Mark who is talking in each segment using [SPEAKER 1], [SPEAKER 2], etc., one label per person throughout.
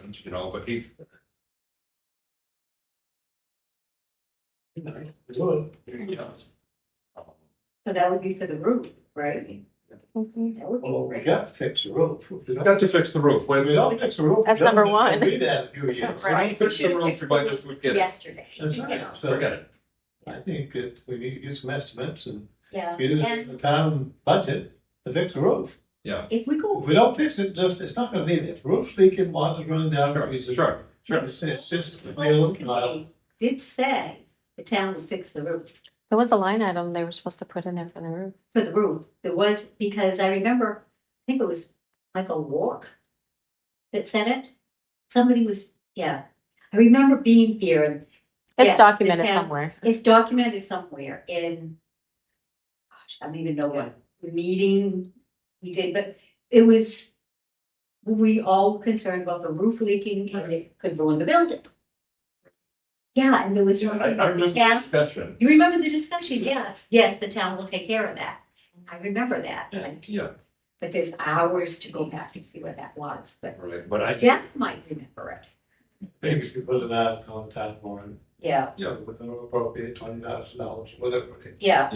[SPEAKER 1] change, you know, but he's.
[SPEAKER 2] Do
[SPEAKER 1] You know.
[SPEAKER 3] So that would be for the roof, right?
[SPEAKER 4] Mm-hmm.
[SPEAKER 3] That would be
[SPEAKER 2] Well, we
[SPEAKER 3] great.
[SPEAKER 2] got to fix the roof. If we
[SPEAKER 1] We've
[SPEAKER 2] don't-
[SPEAKER 1] Got to fix the roof,
[SPEAKER 2] if
[SPEAKER 1] when
[SPEAKER 2] we
[SPEAKER 1] we don't
[SPEAKER 2] don't fix the roof.
[SPEAKER 4] That's
[SPEAKER 2] the
[SPEAKER 4] number
[SPEAKER 2] government
[SPEAKER 4] one.
[SPEAKER 2] won't Be that in a few years.
[SPEAKER 3] Right.
[SPEAKER 1] fix the roof, we might just would get it.
[SPEAKER 3] Yesterday.
[SPEAKER 2] That's
[SPEAKER 3] Yeah.
[SPEAKER 2] right. So
[SPEAKER 1] Forget
[SPEAKER 2] I think that we need to get some estimates and
[SPEAKER 3] Yeah,
[SPEAKER 2] get it in
[SPEAKER 3] and
[SPEAKER 2] the town budget to fix the roof.
[SPEAKER 3] if we
[SPEAKER 2] If
[SPEAKER 3] go,
[SPEAKER 2] we don't fix it, just, it's not gonna be there. If the roof's leaking, water's running down.
[SPEAKER 1] it.
[SPEAKER 2] it's-
[SPEAKER 1] Sure, sure.
[SPEAKER 2] It's, it's just,
[SPEAKER 3] the
[SPEAKER 2] we're
[SPEAKER 3] whole
[SPEAKER 2] looking at it.
[SPEAKER 3] committee did say the town would fix the roof,
[SPEAKER 4] There was a line item they were supposed to put in there for the roof.
[SPEAKER 3] for the roof. There was, because I remember, I think it was Michael Walk that said it. Somebody was, yeah, I remember being here and
[SPEAKER 4] It's
[SPEAKER 3] Yes, the
[SPEAKER 4] documented
[SPEAKER 3] town-
[SPEAKER 4] somewhere.
[SPEAKER 3] It's documented somewhere in, gosh, I don't even know what meeting we did, but it was, we all were concerned about the roof leaking and it could ruin the building. Yeah, and there was
[SPEAKER 1] Yeah, I, I
[SPEAKER 3] something that
[SPEAKER 1] remember
[SPEAKER 3] the
[SPEAKER 1] the
[SPEAKER 3] town,
[SPEAKER 1] discussion,
[SPEAKER 3] you remember the discussion, yes, yes, the town will take care of that. I remember that, like,
[SPEAKER 1] yeah,
[SPEAKER 3] but there's hours to go back and see what that was, but
[SPEAKER 1] right, but I,
[SPEAKER 3] Jeff might remember it,
[SPEAKER 2] Maybe we could put an article on town warrant.
[SPEAKER 3] yeah,
[SPEAKER 1] Yeah.
[SPEAKER 2] With an appropriate twenty thousand dollars, whatever. it is.
[SPEAKER 3] yeah,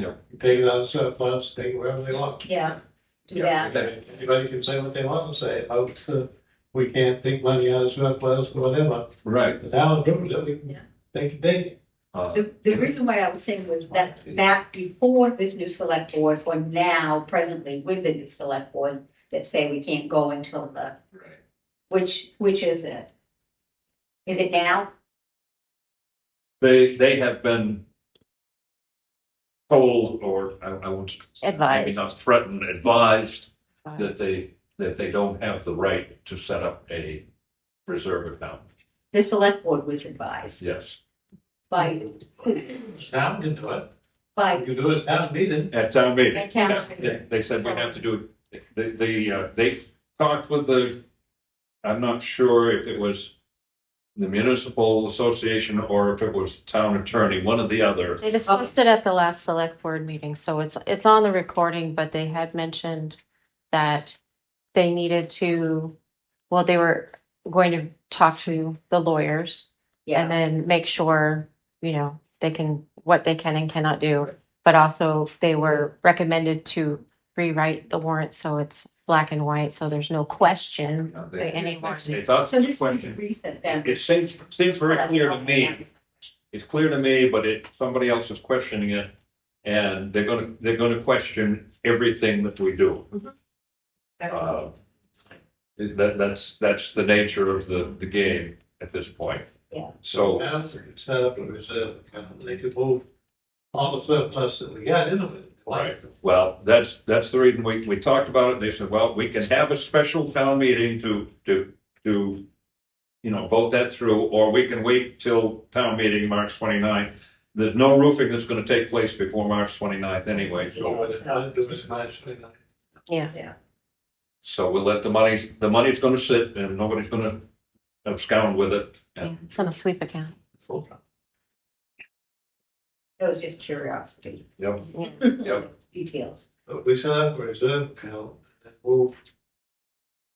[SPEAKER 2] Take it out of surplus, take it wherever they want.
[SPEAKER 3] yeah, do
[SPEAKER 1] Yeah.
[SPEAKER 3] that,
[SPEAKER 2] Anybody can say what they want to say about, uh, we can't take money out of surplus or whatever,
[SPEAKER 1] right,
[SPEAKER 2] the town approved it, we can,
[SPEAKER 3] Yeah.
[SPEAKER 2] they can take it.
[SPEAKER 1] uh,
[SPEAKER 3] The, the reason why I was saying was that
[SPEAKER 2] Mm.
[SPEAKER 3] back before this new select board, or now presently with the new select board, that say we can't go until the,
[SPEAKER 1] right.
[SPEAKER 3] which, which is it? Is it now?
[SPEAKER 1] They, they have been told or, I, I won't. Maybe
[SPEAKER 4] Advised.
[SPEAKER 1] not threatened, advised that they, that they don't have the right to set up a reserve account,
[SPEAKER 3] The select board was advised
[SPEAKER 1] yes.
[SPEAKER 3] by,
[SPEAKER 2] Town can do it, you
[SPEAKER 3] by
[SPEAKER 2] can do it at town meeting.
[SPEAKER 1] At town meeting.
[SPEAKER 3] the town.
[SPEAKER 1] Yeah, They said we have to do it, they, they, uh, they talked with the, I'm not sure if it was the municipal association or if it was the town attorney, one or the other.
[SPEAKER 4] They discussed it at the last select board meeting, so it's, it's on the recording, but they had mentioned that they needed to, well, they were going to talk to the lawyers and
[SPEAKER 3] Yeah,
[SPEAKER 4] then make sure, you know, they can, what they can and cannot do. But also they were recommended to rewrite the warrant so it's black and white, so there's no question.
[SPEAKER 1] Uh,
[SPEAKER 4] Wait,
[SPEAKER 1] They
[SPEAKER 4] anyone.
[SPEAKER 1] they thought,
[SPEAKER 3] so this is the
[SPEAKER 1] it
[SPEAKER 3] reason then.
[SPEAKER 1] seems, seems very clear to me, it's clear to me, but it, somebody else is questioning it. And they're gonna, they're gonna question everything that we do. Uh, That, that's, that's the nature of the, the game at this point.
[SPEAKER 3] Yeah.
[SPEAKER 1] So.
[SPEAKER 2] Towns can set up a reserve account, and they could move all the surplus that we got into it.
[SPEAKER 1] Right, well, that's, that's the reason we, we talked about it, and they said, well, we can have a special town meeting to, to, to, you know, vote that through, or we can wait till town meeting March 29th. There's no roofing that's gonna take place before March 29th anyway,
[SPEAKER 2] So
[SPEAKER 1] so,
[SPEAKER 2] what it's not doing is not showing up.
[SPEAKER 1] so we'll let the money, the money's gonna sit, and nobody's gonna abscond with it.
[SPEAKER 4] Yeah,
[SPEAKER 1] And
[SPEAKER 4] It's on a sweep account.
[SPEAKER 1] so,
[SPEAKER 3] It was just curiosity,
[SPEAKER 1] Yep, yep,
[SPEAKER 3] details.
[SPEAKER 2] But we set up a reserve account, and move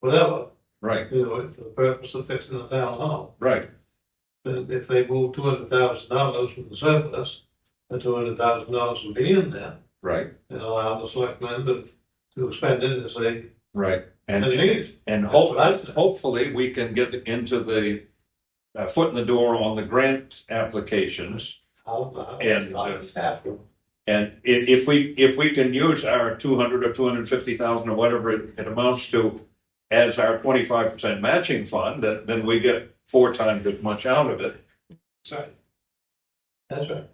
[SPEAKER 2] whatever,
[SPEAKER 1] right,
[SPEAKER 2] you know, for the purpose of fixing the town hall.
[SPEAKER 1] right,
[SPEAKER 2] that if they move two hundred thousand dollars from the surplus, the two hundred thousand dollars will be in there
[SPEAKER 1] right,
[SPEAKER 2] and allow the selectmen to, to spend it as they,
[SPEAKER 1] right. And,
[SPEAKER 2] as needed.
[SPEAKER 1] and hope, hopefully, we can get into the, uh, foot in the door on the grant applications. And, uh, And i- if we, if we can use our two hundred or two hundred and fifty thousand or whatever it it amounts to as our twenty-five percent matching fund, then, then we get four times as much out of it.
[SPEAKER 2] Sorry. That's right.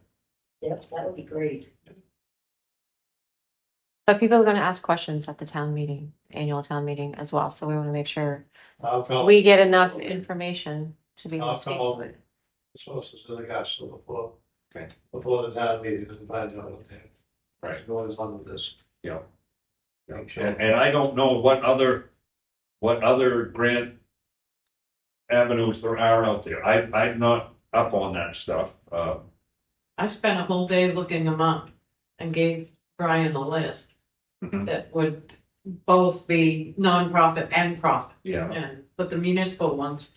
[SPEAKER 3] Yep, that would be great.
[SPEAKER 4] But people are going to ask questions at the town meeting, annual town meeting as well. So we want to make sure
[SPEAKER 2] I'll call
[SPEAKER 4] we get enough information to be able to speak to it.
[SPEAKER 2] the sources of the gospel before,
[SPEAKER 1] Okay.
[SPEAKER 2] before the town meeting and find out what they
[SPEAKER 1] Right.
[SPEAKER 2] Going on with this.
[SPEAKER 1] Yeah.
[SPEAKER 2] Make sure.
[SPEAKER 1] And, and I don't know what other, what other grant avenues there are out there. I, I'm not up on that stuff. Uh,
[SPEAKER 5] I spent a whole day looking them up and gave Brian a list
[SPEAKER 1] Mhm.
[SPEAKER 5] that would both be nonprofit and profit.
[SPEAKER 1] yeah,
[SPEAKER 5] And, but the municipal ones